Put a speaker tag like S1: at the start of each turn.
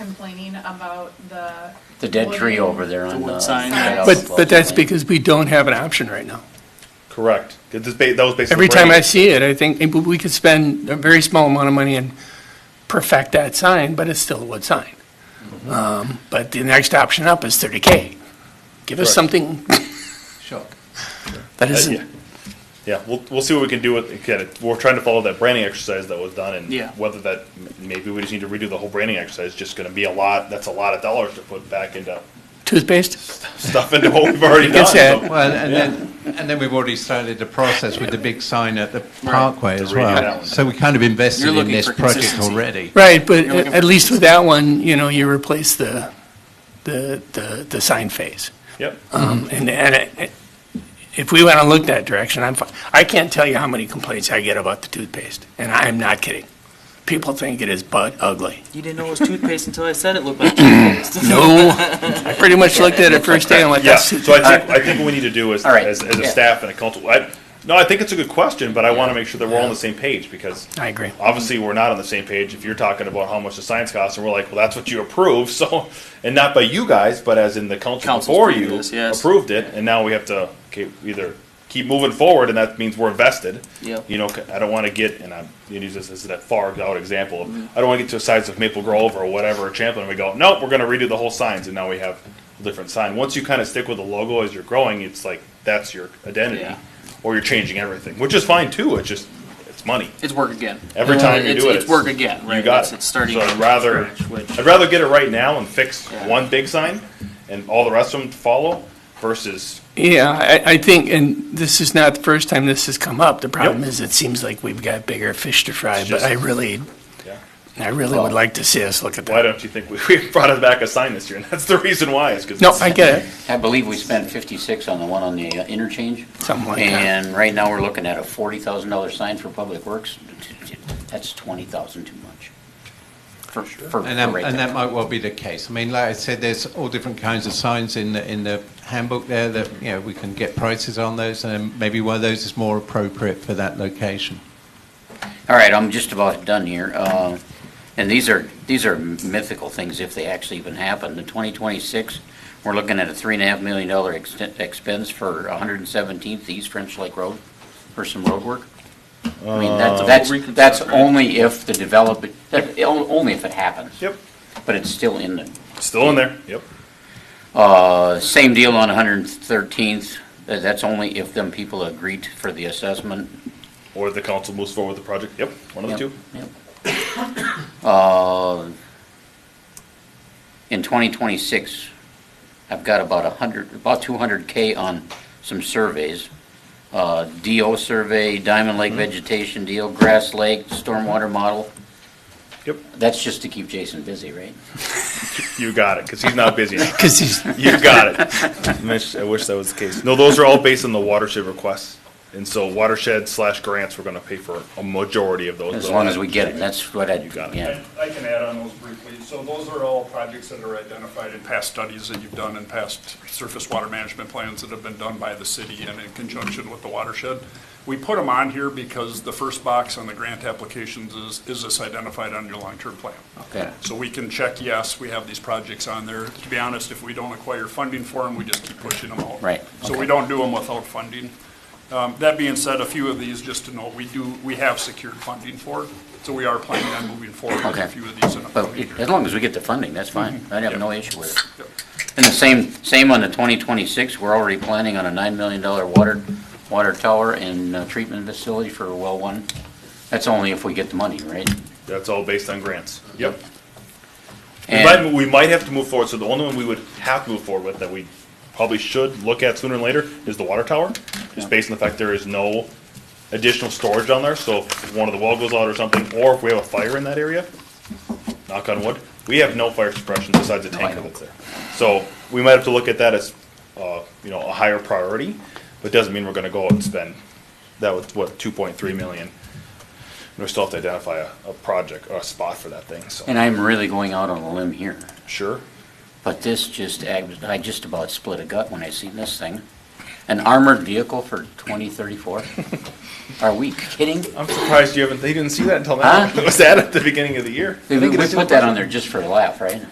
S1: complaining about the.
S2: The dead tree
S1: wooden-
S2: over there on
S3: wood
S2: the.
S3: sign.
S2: right off
S4: But,
S2: of
S4: but that's
S2: Oakland.
S4: because we don't have an option right now.
S5: Correct. 'Cause this ba- That was basically.
S4: Every time I see it, I think eh, we could spend a very small amount of money and perfect that sign, but it's still a wood sign. Um, But the next option up is thirty K. Give us
S5: Correct.
S4: something that
S5: Uh, yeah.
S4: isn't,
S5: Yeah, we'll, we'll see what we can do with, again, we're trying to follow that branding exercise that was done and
S3: Yeah.
S5: whether that, maybe we just need to redo the whole branding exercise, it's just gonna be a lot, that's a lot of dollars to put back into
S4: toothpaste?
S5: stuff into what we've already done.
S4: It's
S5: so-
S4: sad.
S6: Well, and then, and then we've already started the process with the big sign at the parkway as
S5: The radio
S6: well.
S5: balance.
S6: So we kind of invested
S3: You're
S6: in
S3: looking
S6: this
S3: for
S6: project
S3: consistency.
S6: already.
S4: Right, but
S3: You're looking
S4: at
S3: for-
S4: least with that one, you know, you replace the, the, the, the sign phase.
S5: Yep,
S4: Um, And, and it- if we want to look that direction, I'm fine. I can't tell you how many complaints I get about the toothpaste, and I'm not kidding. People think it is butt ugly.
S7: You didn't know it was toothpaste until I said it looked like toothpaste.
S4: No, I pretty much looked at it first day and went,
S5: yeah,
S4: that's
S5: so I think, I think what we need to do is,
S2: All right.
S5: as, as a
S2: Yeah.
S5: staff and a council, I, no, I think it's a good question, but I wanna make sure that we're all on the same page because
S4: I agree.
S5: obviously we're not on the same page if you're talking about how much the science costs and we're like, well, that's what you approved, so, and not by you guys, but as in the council
S3: Council's
S5: before
S3: approved
S5: you
S3: this, yes.
S5: approved it, and now we have to, okay, either keep moving forward and that means we're invested.
S3: Yep.
S5: You know, I don't wanna get, and I'm, gonna use this as that far out example, I don't wanna get to a size of Maple Grove or whatever, or Champlin, and we go, nope, we're gonna redo the whole signs, and now we have a different sign. Once you kinda stick with the logo as you're growing, it's like, that's your identity,
S3: Yeah.
S5: or you're changing everything, which is fine too, it's just, it's money.
S3: It's work again.
S5: Every time you
S3: It's-
S5: do it,
S3: It's work again, right?
S5: You got
S3: It's-
S5: it.
S3: It's starting.
S5: So I'd
S3: from
S5: rather,
S3: scratch, which-
S5: I'd rather get it right now and fix
S3: Yeah.
S5: one big sign and all the rest of them to follow versus,
S4: Yeah, I, I think, and this is not the first time this has come up. The problem
S5: Yep.
S4: is, it seems like we've got bigger fish to fry,
S5: It's
S4: but
S5: just-
S4: I really,
S5: yeah.
S4: I really would like to see us look at
S5: Why
S4: that.
S5: don't you think we, we brought us back a sign this year? And that's the reason why is because.
S4: No, I get it.
S2: I believe we spent fifty-six on the one on the uh, interchange.
S4: Something like that.
S2: And right now, we're looking at a forty thousand dollar sign for Public Works. That's twenty thousand too much. For, for, for
S6: And that,
S2: right
S6: and
S2: there.
S6: that might well be the case. I mean, like I said, there's all different kinds of signs in the, in the handbook there that, you know, we can get prices on those and maybe one of those is more appropriate for that location.
S2: All right, I'm just about done here. Uh, And these are, these are mythical things if they actually even happen. The 2026, we're looking at a three and a half million dollar extent- expense for 117th East French Lake Road for some road work. I mean, that's, that's, that's only if the development, that- only if it happens.
S5: Yep.
S2: But it's still in the
S5: Still in there. Yep.
S2: uh, Same deal on 113th. Uh, That's only if them people agreed for the assessment.
S5: Or the council moves forward with the project. Yep. One of the
S2: Yep,
S5: two.
S2: yep. Uh, In 2026, I've got about 100, about 200K on some surveys. Uh, DO survey, Diamond Lake vegetation deal, Grass Lake, stormwater model.
S5: Yep.
S2: That's just to keep Jason busy, right?
S5: You got it because he's not busy. now.
S4: Because he's,
S5: You got it. I wish- I wish that was the case. No, those are all based on the watershed requests. And so watershed slash grants, we're going to pay for a majority of those.
S2: As long as we get it, that's what I'd,
S5: You got it.
S2: yeah.
S8: I I can add on those briefly. So those are all projects that are identified in past studies that you've done and past surface water management plans that have been done by the city and in conjunction with the watershed. We put them on here because the first box on the grant applications is, is this identified on your long-term plan?
S2: Okay.
S8: So we can check, yes, we have these projects on there. To be honest, if we don't acquire funding for them, we just keep pushing them out.
S2: Right,
S8: So
S2: okay.
S8: we don't do them without funding. Um, That being said, a few of these, just to note, we do, we have secured funding for, so we are planning on moving forward with
S2: Okay.
S8: a few of these in a
S2: But
S8: coming
S2: it-
S8: year.
S2: as long as we get the funding, that's fine. I have no issue with it.
S8: Yep.
S2: And the same, same on the 2026, we're already planning on a $9 million water, water tower and uh, treatment facility for well one. That's only if we get the money, right?
S5: That's all based on grants. Yep. We
S2: And
S5: might, we might have to move forward, so the only one we would have to move forward with that we probably should look at sooner than later is the water tower, just based on the fact there is no additional storage down there, so if one of the well goes out or something, or if we have a fire in that area, knock on wood, we have no fire suppression besides the
S2: No, I
S5: tanker
S2: know.
S5: that's there. So we might have to look at that as, uh, you know, a higher priority, but doesn't mean we're gonna go out and spend, that was what, two point three million? And we still have to identify a, a project, or a spot for that thing, so,
S2: and I'm really going out on a limb here,
S5: sure.
S2: but this just, ag- I just about split a gut when I seen this thing. an armored vehicle for 2034? Are we kidding?
S5: I'm surprised you haven't, they didn't see that until now.
S2: Huh?
S5: It was that at the beginning of the year.
S2: We we put that on there just for a laugh, right?